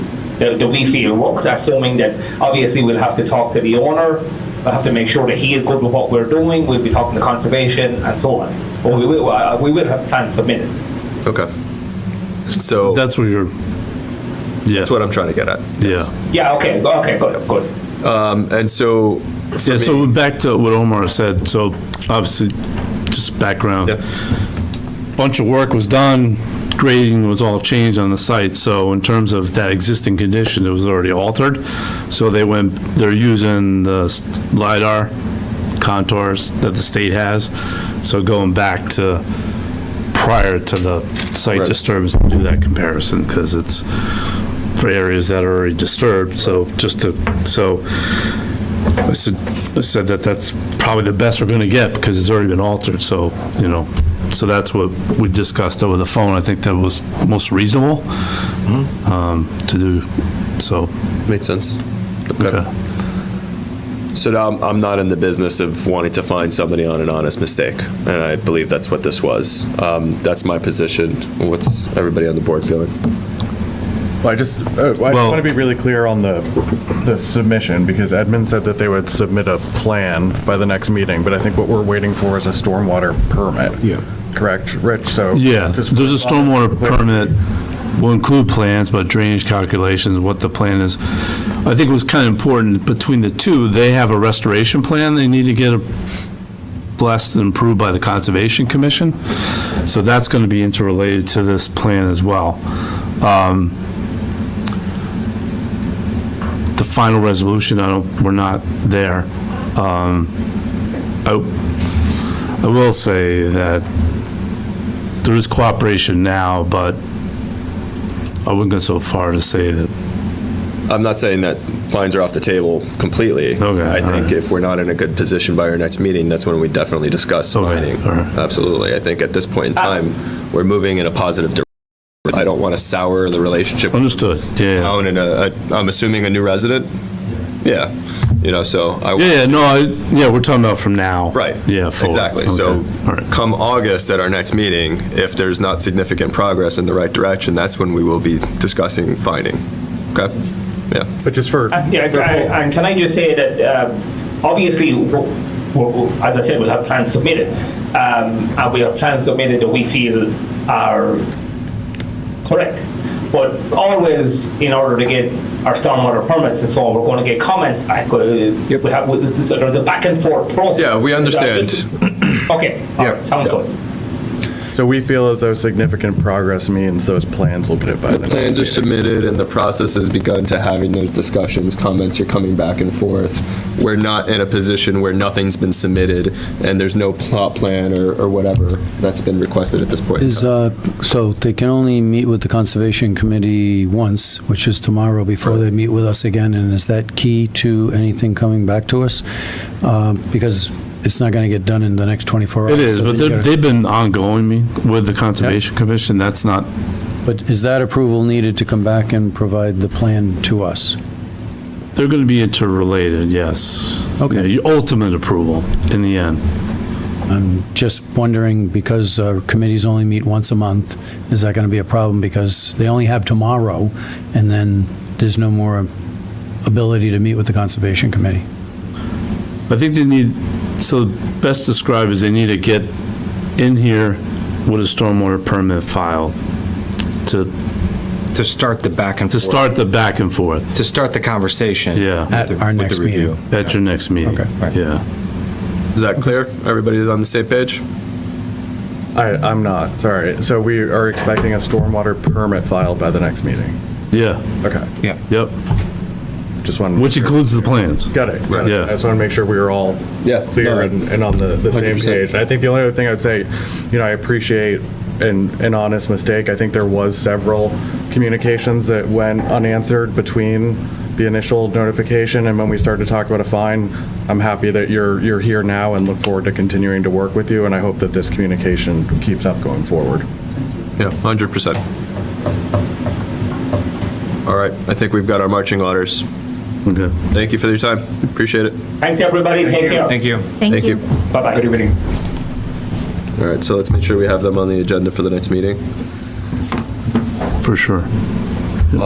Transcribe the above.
that that we feel works, assuming that obviously we'll have to talk to the owner, we'll have to make sure that he is good with what we're doing, we'll be talking to conservation and so on. But we will, uh, we will have plans submitted. Okay. So that's That's what you're, yeah, what I'm trying to get at. yeah. Yeah, okay, go- okay, good, good. And so, Yeah, so back to what Omar said, so obviously, just background. Yep. Bunch of work was done, grading was all changed on the site, so in terms of that existing condition, it was already altered. So they went, they're using the LiDAR contours that the state has, so going back to prior to the site Right. disturbance, to do that comparison, because it's for areas that are already disturbed, so just to, so I said, I said that that's probably the best we're gonna get, because it's already been altered, so, you know, so that's what we discussed over the phone, I think that was most reasonable, um, to do, so, made sense. Okay. okay. So now I'm, I'm not in the business of wanting to find somebody on an honest mistake, and I believe that's what this was. Um, that's my position. What's everybody on the board feeling? Well, I just, uh, I Well- want to be really clear on the, the submission, because Edmund said that they would submit a plan by the next meeting, but I think what we're waiting for is a stormwater permit. Yeah. Correct, Rich, so. Yeah, just- there's a stormwater permit, will include plans, but drainage calculations, what the plan is. I think it was kind of important, between the two, they have a restoration plan they need to get blessed and approved by the Conservation Commission, so that's going to be interrelated to this plan as well. Um, The final resolution, I don't, we're not there. Um, I I will say that there is cooperation now, but I wouldn't go so far to say that, I'm not saying that fines are off the table completely. Okay, I think alright. if we're not in a good position by our next meeting, that's when we definitely discuss Okay, fining. alright. Ah. Absolutely. I think at this point in time, we're moving in a positive direction. I don't want to sour the relationship with understood, yeah. town and a, a- I'm assuming a new resident? Yeah, you know, so I. Yeah, yeah, no, I, yeah, we're talking about from now. Right. Yeah. forward. Exactly. So Okay, all right. come August at our next meeting, if there's not significant progress in the right direction, that's when we will be discussing finding. Okay? Yeah. But just for. Uh, Yeah, for- I- I- and can I just say that, um, obviously, w- w- w- as I said, we'll have plans submitted. Um, And we have plans submitted that we feel are correct. But always, in order to get our stormwater permits and so on, we're going to get comments back. uh, We have, we- so there's a back and forth process. Yeah, we understand. Okay, all Yeah. right, sounds good. So we feel as though significant progress means those plans will be by the next Plans are meeting. submitted and the process has begun to having those discussions, comments are coming back and forth. We're not in a position where nothing's been submitted and there's no plot plan or, or whatever that's been requested at this point. in Is, time. uh, so they can only meet with the Conservation Committee once, which is tomorrow, before they meet with us again, and is that key to anything coming back to us? Um, Because it's not going to get done in the next 24 It hours. is, so but then you they've, gotta- they've been ongoing me with the Conservation Commission, that's not, But is that approval needed to come back and provide the plan to us? they're gonna be interrelated, yes. Okay. Yeah, Your ultimate approval in the end. I'm just wondering, because uh, committees only meet once a month, is that going to be a problem? Because they only have tomorrow, and then there's no more ability to meet with the Conservation Committee. I think they need, so best described is they need to get in here with a stormwater permit filed to, to start the back and to forth. start the back and forth, to start the conversation. Yeah. At with the- our with the next review. meeting. at your next meeting. Okay, right. Yeah. Is that clear? Everybody's on the same page? I, I'm not, sorry. So we are expecting a stormwater permit filed by the next meeting. Yeah, Okay, Yeah. yep, just wanted. to- which includes the plans. Got it. got it. Yeah. I just want to make sure we were all Yeah, no, clear and and on the, the same 100%. page. And I think the only other thing I'd say, you know, I appreciate an, an honest mistake. I think there was several communications that went unanswered between the initial notification and when we started to talk about a fine. I'm happy that you're, you're here now and look forward to continuing to work with you, and I hope that this communication keeps up going forward. Yeah, 100%. All right, I think we've got our marching orders. Okay. Thank you for your time. Appreciate it. Thanks, everybody, take care. Thank you. Thank you. Bye-bye. Good evening. All right, so let's make sure we have them on the agenda for the next meeting. For sure.